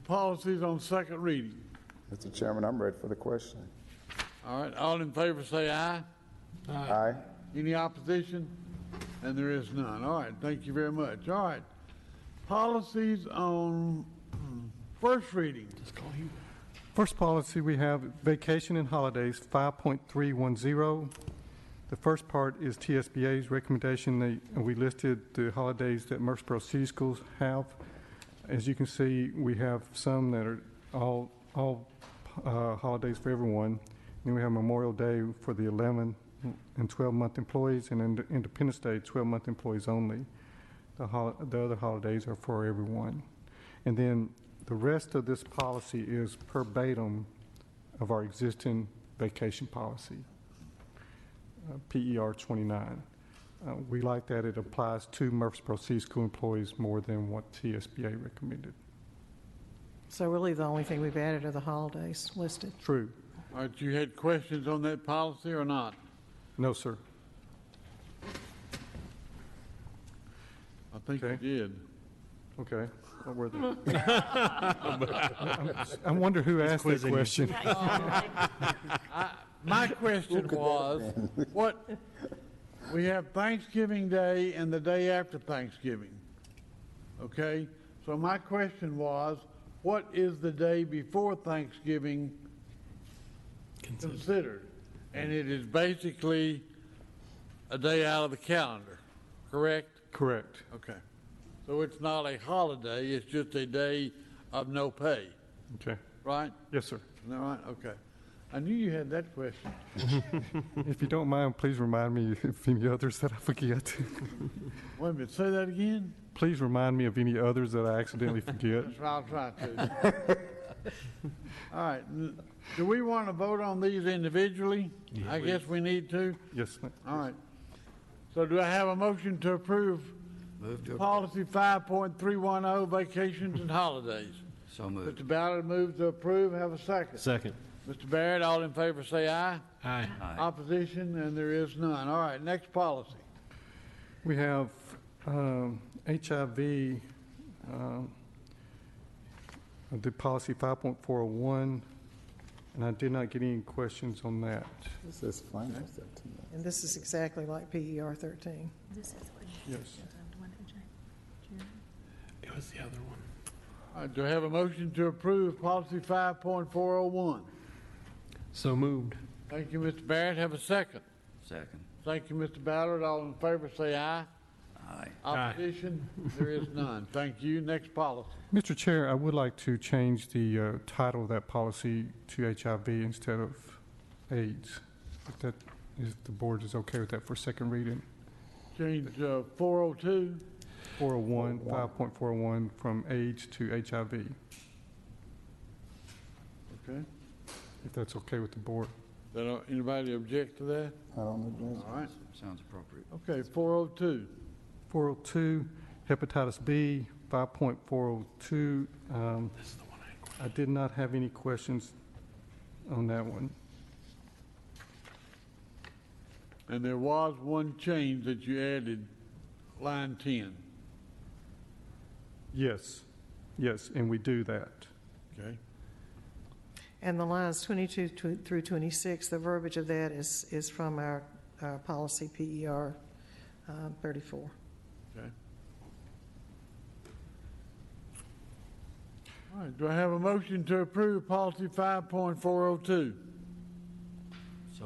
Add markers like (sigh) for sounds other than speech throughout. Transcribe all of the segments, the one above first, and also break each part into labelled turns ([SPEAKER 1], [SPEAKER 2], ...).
[SPEAKER 1] policies on second reading.
[SPEAKER 2] Mr. Chairman, I'm ready for the question.
[SPEAKER 1] All right, all in favor say aye.
[SPEAKER 2] Aye.
[SPEAKER 1] Any opposition? And there is none. All right, thank you very much. All right. Policies on mm, first reading.
[SPEAKER 3] First policy we have vacation and holidays, 5.310. The first part is TSBA's recommendation. They- We listed the holidays that Murfreesboro City Schools have. As you can see, we have some that are all, all uh, holidays for everyone. Then we have Memorial Day for the 11 and 12-month employees, and Ind- Independence Day, 12-month employees only. The hol, the other holidays are for everyone. And then the rest of this policy is verbatim of our existing vacation policy, uh, PER 29. Uh, We like that it applies to Murfreesboro City School employees more than what TSBA recommended.
[SPEAKER 4] So really, the only thing we've added are the holidays listed.
[SPEAKER 3] True.
[SPEAKER 1] All right, you had questions on that policy or not?
[SPEAKER 3] No, sir.
[SPEAKER 1] I think you
[SPEAKER 3] Okay.
[SPEAKER 1] did.
[SPEAKER 3] Okay. What were they? I wonder who asked that question.
[SPEAKER 1] My question was, (laughs) what, we have Thanksgiving Day and the day after Thanksgiving. Okay? So my question was, what is the day before Thanksgiving considered? And it is basically a day out of the calendar, correct?
[SPEAKER 3] Correct.
[SPEAKER 1] Okay. So it's not a holiday, it's just a day of no pay,
[SPEAKER 3] Okay.
[SPEAKER 1] right?
[SPEAKER 3] Yes, sir.
[SPEAKER 1] All right, okay. I knew you had that question.
[SPEAKER 3] If you don't mind, please remind me of any others that I forget. (laughs)
[SPEAKER 1] Wait a minute, say that again?
[SPEAKER 3] Please remind me of any others that I accidentally forget.
[SPEAKER 1] That's what I'll try to. (laughs) All right, n- do we want to vote on these individually? I guess we need to.
[SPEAKER 3] Yes, ma'am.
[SPEAKER 1] All right. So do I have a motion to approve policy 5.310, oh, vacations and holidays?
[SPEAKER 5] So moved.
[SPEAKER 1] Mr. Ballard moves to approve, have a second.
[SPEAKER 6] Second.
[SPEAKER 1] Mr. Barrett, all in favor say aye.
[SPEAKER 6] Aye.
[SPEAKER 1] Opposition, and there is none. All right, next policy.
[SPEAKER 3] We have um, HIV, um, the policy 5.401, and I did not get any questions on that.
[SPEAKER 2] This is fine. Mr. Chairman.
[SPEAKER 4] And this is exactly like E PER 13.
[SPEAKER 7] This is the one.
[SPEAKER 3] Yes.
[SPEAKER 7] The one that Jane- Jane-
[SPEAKER 6] It was the other one.
[SPEAKER 1] All right, do I have a motion to approve policy 5.401?
[SPEAKER 6] So moved.
[SPEAKER 1] Thank you, Mr. Barrett. Have a second.
[SPEAKER 5] Second.
[SPEAKER 1] Thank you, Mr. Ballard. All in favor, say aye.
[SPEAKER 5] Aye.
[SPEAKER 1] Opposition? There is none. Thank you. Next policy.
[SPEAKER 3] Mr. Chair, I would like to change the uh, title of that policy to HIV instead of AIDS. If that, if the board is okay with that for second reading.
[SPEAKER 1] Change uh, 402.
[SPEAKER 3] 401, 5.41, oh from AIDS to HIV,
[SPEAKER 1] Okay.
[SPEAKER 3] if that's okay with the board.
[SPEAKER 1] Then, uh, anybody object to that?
[SPEAKER 2] I don't agree.
[SPEAKER 1] All right.
[SPEAKER 5] Sounds appropriate.
[SPEAKER 1] Okay, 402.
[SPEAKER 3] 402, hepatitis B, 5.402. Um, I did not have any questions on that one.
[SPEAKER 1] And there was one change that you added, line 10.
[SPEAKER 3] Yes, yes, and we do that.
[SPEAKER 1] Okay.
[SPEAKER 4] And the lines 22 to- through 26, the verbiage of that is, is from our, our policy PER uh, 34.
[SPEAKER 1] Okay. All right, do I have a motion to approve policy 5.402?
[SPEAKER 5] So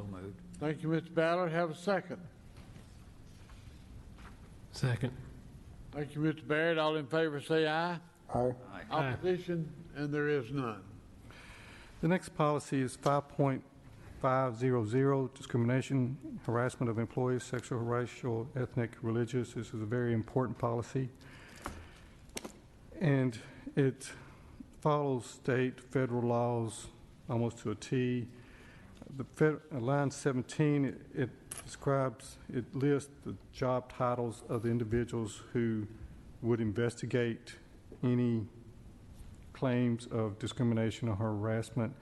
[SPEAKER 5] moved.
[SPEAKER 1] oh Thank you, Mr. Ballard. Have a second.
[SPEAKER 6] Second.
[SPEAKER 1] Thank you, Mr. Barrett. All in favor, say aye.
[SPEAKER 2] Aye.
[SPEAKER 5] Aye.
[SPEAKER 1] Opposition, and there is none.
[SPEAKER 3] The next policy is 5.500, discrimination, harassment of employees, sexual, racial, ethnic, religious. This is a very important policy. And it follows state, federal laws almost to a T. The fed, uh, line 17, it- it describes, it lists the job titles of the individuals who would investigate any claims of discrimination or harassment.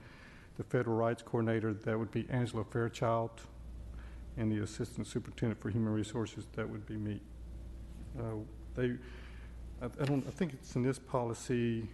[SPEAKER 3] The Federal Rights Coordinator, that would be Angela Fairchild, and the Assistant Superintendent for Human Resources, that would be me. Uh, They, I I don't, I think it's in this policy,